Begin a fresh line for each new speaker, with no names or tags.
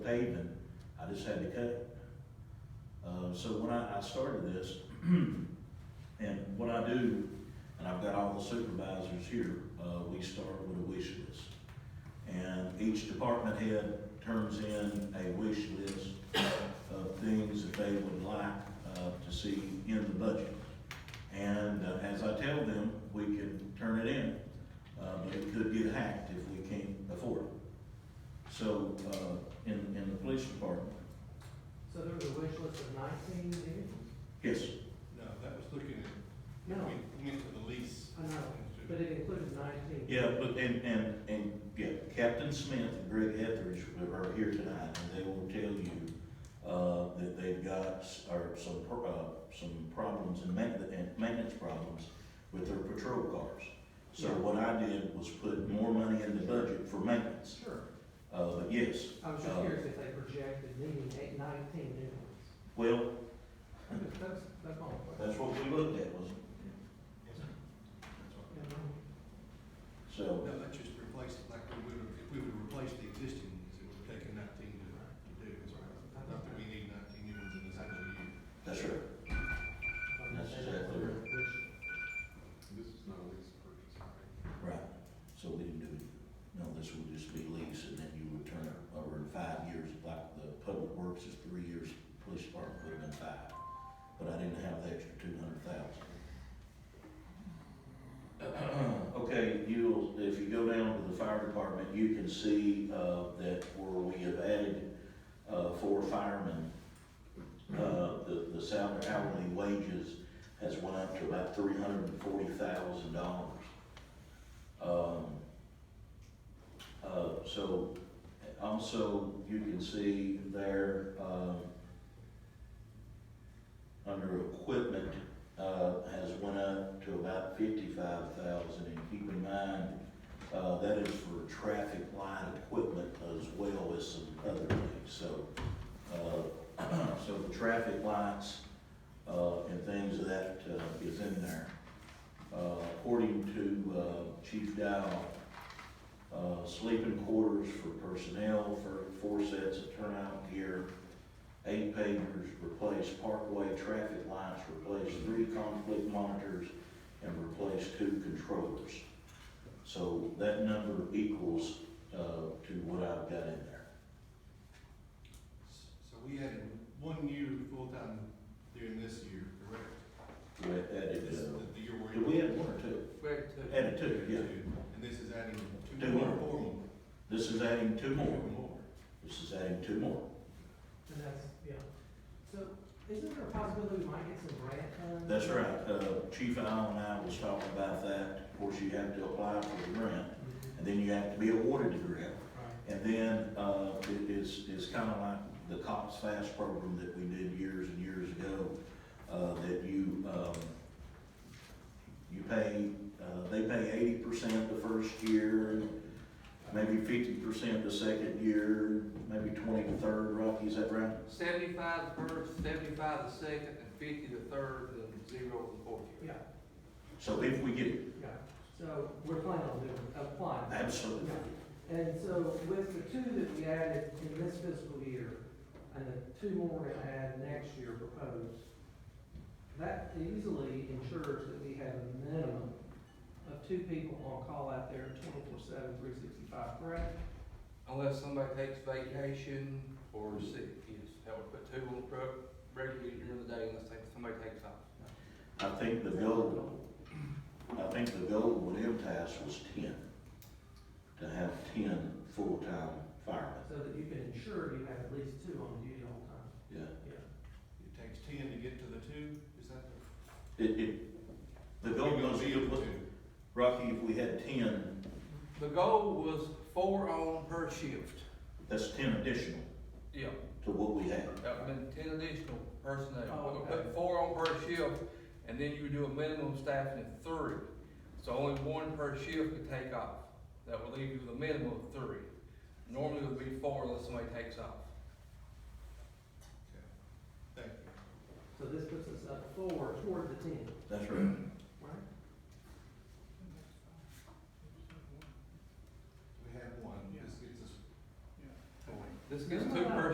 pavement, I just had to cut it. Uh, so when I, I started this, and what I do, and I've got all the supervisors here, uh, we start with a wish list. And each department head turns in a wish list of things that they would like, uh, to see in the budget. And uh, as I tell them, we can turn it in, uh, but it could get hacked if we can't afford it. So, uh, in, in the police department,
So there was a wish list of nineteen vehicles?
yes,
No, that was looking at, we
No,
went to the lease.
I know, but it included nineteen.
yeah, but, and, and, and, yeah, Captain Smith and Greg Etheridge are here tonight, and they will tell you, uh, that they've got, s- or some, pro- uh, some problems and ma- and maintenance problems with their patrol cars. So
Yeah.
what I did was put more money in the budget for maintenance,
Sure.
uh, but yes,
I was just
Uh,
curious if they projected needing eight, nineteen new ones.
well,
That's, that's- that's my question.
that's what we looked at, was,
Yes, sir. That's all.
Yeah, no.
so,
No, that just replaced, it like, we would, if we would replace the existing ones, it would take nineteen to, to do, is right. Not that we need nineteen new ones in this actual year.
that's right. That's exactly right.
Which-
This is not a lease purchase, right?
Right, so we didn't do it, no, this would just be lease, and then you would turn it over in five years, like the public works is three years, police department would have been five. But I didn't have the extra two hundred thousand. Okay, you'll, if you go down to the fire department, you can see, uh, that where we have added, uh, four firemen, uh, the, the salary, hourly wages has went up to about three hundred and forty thousand dollars. Um, uh, so, also, you can see there, um, under equipment, uh, has went up to about fifty-five thousand, and keep in mind, uh, that is for traffic light equipment as well as some other things, so, uh, so the traffic lights, uh, and things of that, uh, is in there. Uh, according to, uh, Chief Dow, uh, sleeping quarters for personnel for four sets of turnout gear, eight pagers, replace parkway traffic lights, replace three conflict monitors, and replace two controllers. So that number equals, uh, to what I've got in there.
So we added one new full-time during this year, correct?
We added,
This,
uh,
the, the year we're.
did we add one or two?
Greg took-
Added two, yeah.
And this is adding two
Two
more,
more.
four more.
This is adding two more,
More.
this is adding two more.
And that's, yeah. So isn't there a possibility we might get some grant funds?
That's right, uh, Chief Allen and I was talking about that, of course, you have to apply for the grant,
Mhm.
and then you have to be awarded the grant.
Right.
And then, uh, it is, is kinda like the Cops Fast program that we did years and years ago, uh, that you, um, you pay, uh, they pay eighty percent the first year, and maybe fifty percent the second year, maybe twenty the third, Rocky, is that right?
Seventy-five the first, seventy-five the second, and fifty the third, and zero the fourth year.
Yeah,
So if we get it,
yeah. So we're planning on doing, applying.
absolutely.
And so with the two that we added in this fiscal year, and the two more we're gonna add next year proposed, that easily ensures that we have a minimum of two people on call out there twenty-four seven, three sixty-five, correct?
Unless somebody takes vacation or is sick, yes, that would put two on the truck regularly during the day unless they- somebody takes off.
I think the goal, I think the goal with MTS was ten, to have ten full-time firemen,
So that you can ensure you have at least two on duty all the time.
yeah.
It takes ten to get to the two, is that the?
It, it, the goal
We're gonna
was,
be able to.
Rocky, if we had ten,
The goal was four on per shift.
that's ten additional
Yeah,
to what we had.
that would have been ten additional personnel.
Oh,
We're gonna
okay.
put four on per shift, and then you would do a minimum staffing of three. So only one per shift could take off. That would leave you with a minimum of three. Normally it would be four unless somebody takes off.
Okay. Thank you.
So this puts us up four toward the ten,
That's right.
right?
We have one, yes, it's a.
This gets two